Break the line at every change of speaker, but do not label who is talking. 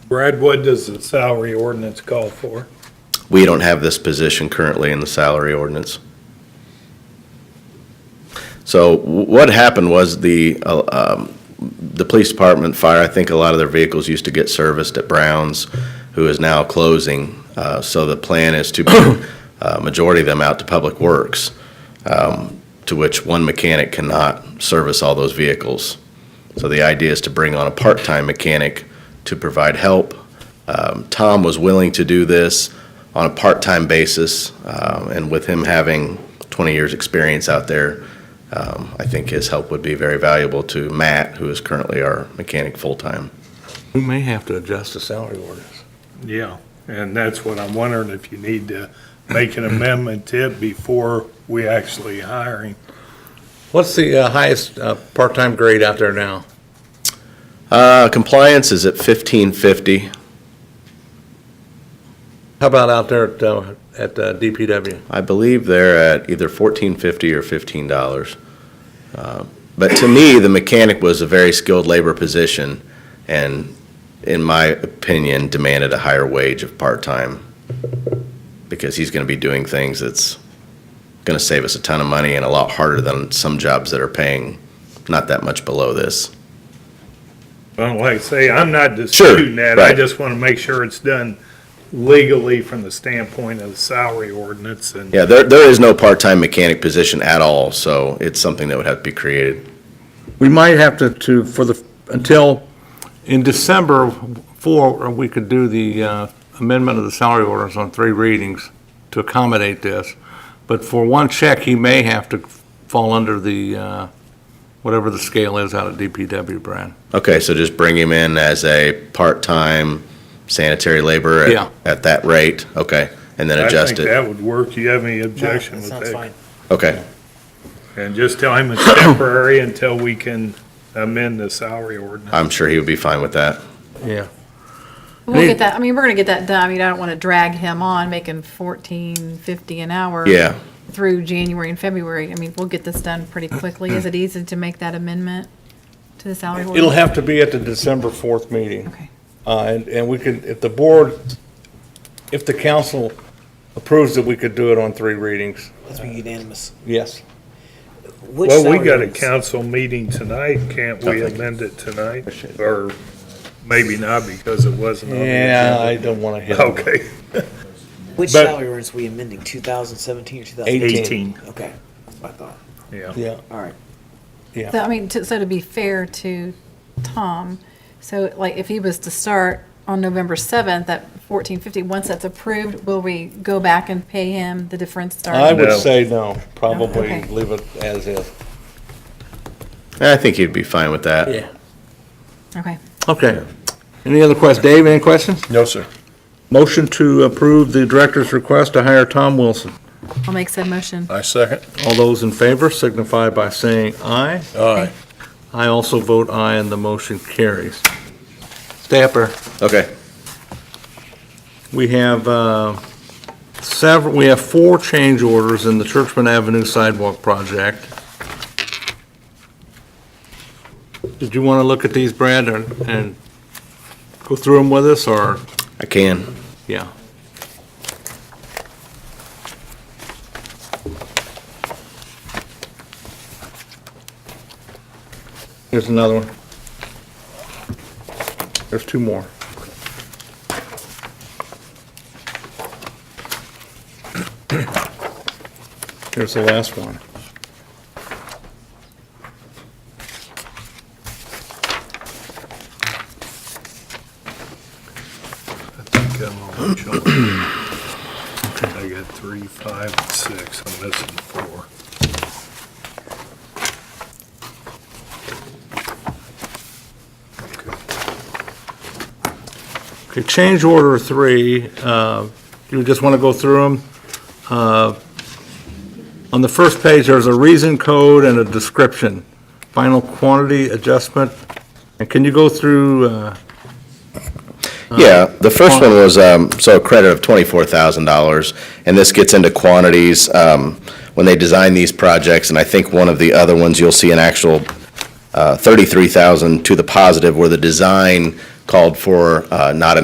Brad, what does the salary ordinance call for?
We don't have this position currently in the salary ordinance. So wh- what happened was the, uh, um, the police department, fire, I think a lot of their vehicles used to get serviced at Brown's, who is now closing. Uh, So the plan is to bring a majority of them out to Public Works, um, to which one mechanic cannot service all those vehicles. So the idea is to bring on a part-time mechanic to provide help. Um, Tom was willing to do this on a part-time basis, um, and with him having 20 years' experience out there, um, I think his help would be very valuable to Matt, who is currently our mechanic full-time.
We may have to adjust the salary orders.
Yeah, and that's what I'm wondering, if you need to make an amendment to it before we actually hire him.
What's the uh, highest uh, part-time grade out there now?
Uh, Compliance is at 1550.
How about out there at, uh, at uh, DPW?
I believe they're at either fourteen fifty or fifteen dollars. Uh, But to me, the mechanic was a very skilled labor position, and in my opinion, demanded a higher wage of part-time, because he's gonna be doing things that's gonna save us a ton of money and a lot harder than some jobs that are paying not that much below this.
Well, like I say, I'm not disputing that, I
right.
just want to make sure it's done legally from the standpoint of the salary ordinance and.
Yeah, there, there is no part-time mechanic position at all, so it's something that would have to be created.
We might have to, to, for the, until, in December, four, we could do the uh, amendment of the salary orders on three readings to accommodate this. But for one check, he may have to fall under the, uh, whatever the scale is out of DPW, Brad.
Okay, so just bring him in as a part-time sanitary laborer
Yeah.
at, at that rate, okay, and then adjust
I think
it?
that would work, do you have any objection with
Sounds fine.
that?
Okay,
And just tell him it's temporary until we can amend the salary ordinance.
I'm sure he would be fine with that.
Yeah.
We'll
Need-
get that, I mean, we're gonna get that done, I mean, I don't wanna drag him on, making fourteen fifty an hour.
Yeah,
Through January and February, I mean, we'll get this done pretty quickly, is it easy to make that amendment to the salary ordinance?
It'll have to be at the December 4th meeting.
Okay,
Uh, And, and we could, if the board, if the council approves that we could do it on three readings,
Let's be unanimous.
yes.
Which
Uh, Well, we
salary
got a
ordinance?
council meeting tonight, can't we amend it tonight? Or maybe not because it wasn't on the agenda.
Yeah, I don't want to hit.
Okay, but-
Which salary ordinance are we amending, 2017 or 2018?
Eighteen.
eighteen,
Okay, that's what I thought.
yeah.
Yeah,
All right.
so, I mean, to- so to be fair to Tom, so like, if he was to start on November seventh, at fourteen fifty, once that's approved, will we go back and pay him the difference
I
starting?
No.
would say no, probably
Okay.
leave it as is.
I think he'd be fine with that.
Okay,
Okay. Any other questions? Dave, any questions?
No, sir.
Motion to approve the director's request to hire Tom Wilson.
I'll make said motion.
I second.
All those in favor signify by saying aye.
Aye.
I also vote aye and the motion carries. Stay up there.
Okay,
We have uh, several, we have four change orders in the Churchman Avenue sidewalk project. Did you want to look at these, Brad, and and go through them with us, or,
I can.
yeah? Here's another one. There's two more. Here's the last one.
I think I'm on the chart. I got three, five, and six, I'm missing four.
Okay, change order three, uh, you just want to go through them? On the first page, there's a reason code and a description, final quantity adjustment. And can you go through, uh,
Yeah, the first one was, um, so a credit of twenty-four thousand dollars, and this gets into quantities, um, when they design these projects, and I think one of the other ones, you'll see an actual, uh, thirty-three thousand to the positive, where the design called for, uh, not